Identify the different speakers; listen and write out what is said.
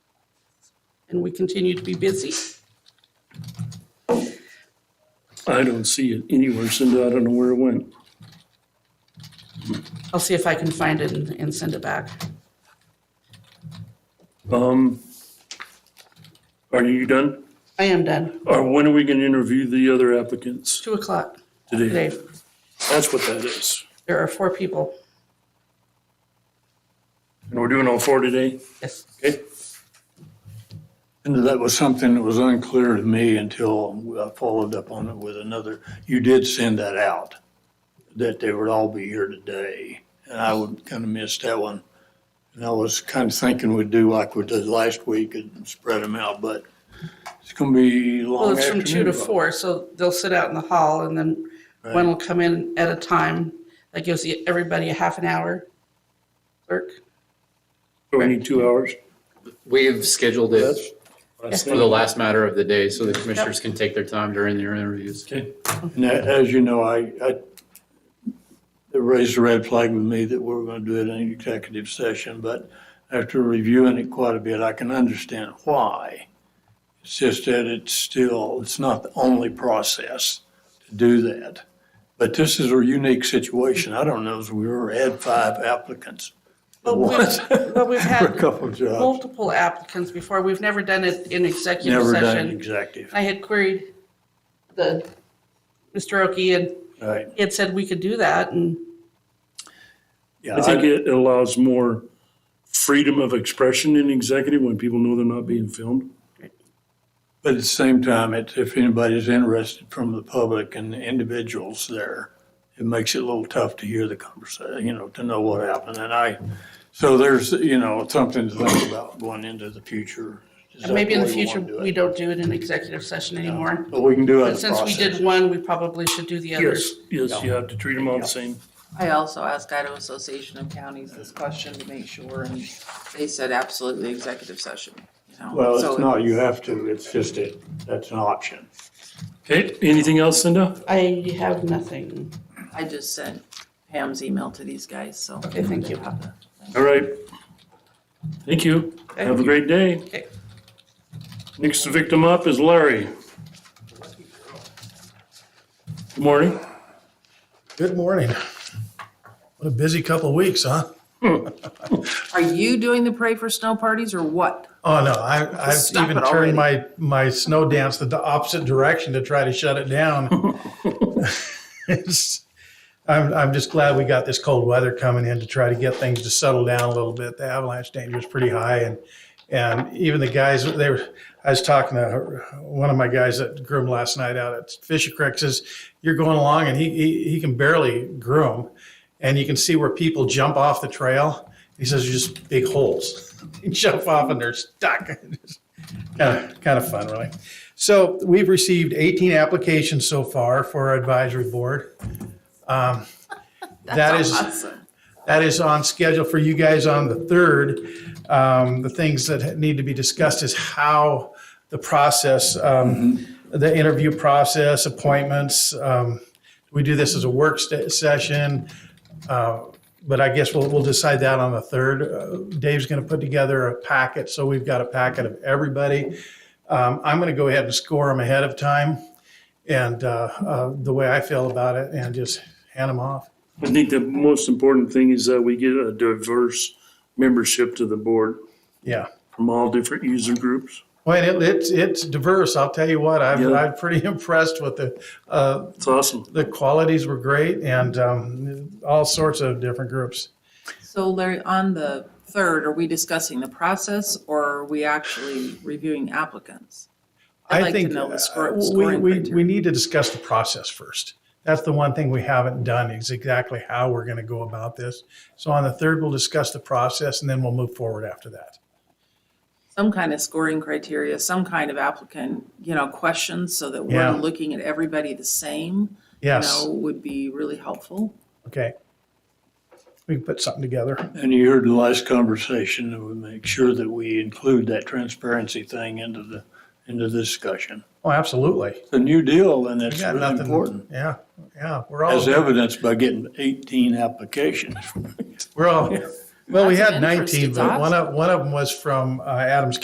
Speaker 1: and we continue to be busy.
Speaker 2: I don't see it anywhere, Cindy. I don't know where it went.
Speaker 1: I'll see if I can find it and, and send it back.
Speaker 2: Um, are you done?
Speaker 1: I am done.
Speaker 2: Or when are we gonna interview the other applicants
Speaker 1: Two o'clock
Speaker 2: today?
Speaker 1: today.
Speaker 2: That's what that is.
Speaker 1: There are four people.
Speaker 2: And we're doing all four today?
Speaker 1: Yes.
Speaker 2: Okay?
Speaker 3: And that was something that was unclear to me until I followed up on it with another. You did send that out, that they would all be here today. And I would kind of miss that one. And I was kind of thinking we'd do like we did last week and spread them out, but it's going to be long
Speaker 1: Well, it's from
Speaker 3: afternoon.
Speaker 1: two to
Speaker 3: Bob.
Speaker 1: four, so they'll sit out in the hall and then one will come in at a time. That gives the- everybody a half an hour. Clerk,
Speaker 2: So We need two hours?
Speaker 4: We've scheduled it
Speaker 3: That's-
Speaker 4: for the last matter of the day, so the commissioners can take their time during their interviews.
Speaker 2: Okay.
Speaker 3: And a- as you know, I, I, it raised a red flag with me that we were going to do it in an executive session, but after reviewing it quite a bit, I can understand why. It's just that it's still, it's not the only process to do that. But this is a unique situation. I don't know if we were at five applicants
Speaker 1: But we've, but we've
Speaker 3: for a
Speaker 1: had
Speaker 3: couple of jobs.
Speaker 1: multiple applicants before. We've never done it in executive
Speaker 3: Never done
Speaker 1: session.
Speaker 3: executive,
Speaker 1: I had queried the, Mr. Oki and
Speaker 3: right?
Speaker 1: he had said we could do that and
Speaker 3: Yeah,
Speaker 2: I think it allows more freedom of expression in executive when people know they're not being filmed.
Speaker 3: But at the same time, it, if anybody's interested from the public and the individuals there, it makes it a little tough to hear the conversation, you know, to know what happened. And I, so there's, you know, something to think about going into the future. Is that
Speaker 1: and maybe in the
Speaker 3: way we wanna
Speaker 1: future,
Speaker 3: do it?
Speaker 1: we don't do it in executive session anymore.
Speaker 3: But we can do other
Speaker 1: But since we did
Speaker 3: processes.
Speaker 1: one, we probably should do the
Speaker 2: Yes,
Speaker 1: others.
Speaker 2: yes, you have to treat them all the same.
Speaker 5: I also asked Idaho Association of Counties this question to make sure, and they said absolutely executive session, you know.
Speaker 3: Well,
Speaker 5: So
Speaker 3: it's not, you have to, it's just it, that's an option.
Speaker 2: Okay, anything else, Cinda?
Speaker 1: I have nothing.
Speaker 5: I just sent Pam's email to these guys, so.
Speaker 1: Okay, thank you.
Speaker 5: they have the-
Speaker 2: All right. Thank you. Have a great day.
Speaker 1: Okay.
Speaker 2: Next victim up is Larry. Good morning.
Speaker 6: Good morning. What a busy couple of weeks, huh?
Speaker 5: Are you doing the Pray for Snow parties or what?
Speaker 6: Oh no, I, I've
Speaker 5: Stop
Speaker 6: even
Speaker 5: it
Speaker 6: turned
Speaker 5: already.
Speaker 6: my my snow dance the opposite direction to try to shut it down. it's, I'm I'm just glad we got this cold weather coming in to try to get things to settle down a little bit. The avalanche danger is pretty high, and and even the guys they were. I was talking to one of my guys that groomed last night out at Fisher Creek. Says you're going along, and he he, he can barely groom, and you can see where people jump off the trail. He says there's just big holes. They jump off and they're stuck. kind, of, kind of fun, really. So we've received 18 applications so far for our advisory board. Um, that is
Speaker 5: Awesome.
Speaker 6: that is on schedule for you guys on the third. Um, the things that need to be discussed is how the process, um, the interview process, appointments. Um, we do this as a work st- session, uh, but I guess we'll, we'll decide that on the third. Uh, Dave's going to put together a packet, so we've got a packet of everybody. Um, I'm going to go ahead and score them ahead of time, and uh, uh, the way I feel about it, and just hand them off.
Speaker 2: I think the most important thing is that we get a diverse membership to the board
Speaker 6: Yeah.
Speaker 2: from all different user groups.
Speaker 6: Well, it, it's it's diverse. I'll tell you what, I've
Speaker 2: Yeah.
Speaker 6: I'm pretty impressed with the uh,
Speaker 2: It's awesome.
Speaker 6: the qualities were great and um, all sorts of different groups.
Speaker 5: So Larry, on the third, are we discussing the process or are we actually reviewing applicants? I'd like to know the
Speaker 6: uh,
Speaker 5: scor-
Speaker 6: we,
Speaker 5: scoring
Speaker 6: we, we
Speaker 5: criteria.
Speaker 6: need to discuss the process first. That's the one thing we haven't done is exactly how we're going to go about this. So on the third, we'll discuss the process and then we'll move forward after that.
Speaker 5: Some kind of scoring criteria, some kind of applicant, you know, questions so that
Speaker 6: Yeah.
Speaker 5: we're looking at everybody the same. you
Speaker 6: Yes.
Speaker 5: know, would be really helpful.
Speaker 6: Okay. We can put something together.
Speaker 3: And you heard the last conversation, that we make sure that we include that transparency thing into the, into the discussion.
Speaker 6: Oh, absolutely.
Speaker 3: It's a new deal and it's
Speaker 6: Yeah,
Speaker 3: really
Speaker 6: nothing-
Speaker 3: important.
Speaker 6: Yeah. Yeah. We're all
Speaker 3: As evidenced by getting 18 applications.
Speaker 6: We're all, well, we
Speaker 5: Lots of
Speaker 6: had
Speaker 5: interest.
Speaker 6: 19,
Speaker 5: It's
Speaker 6: but one of, one of them was from uh, Adams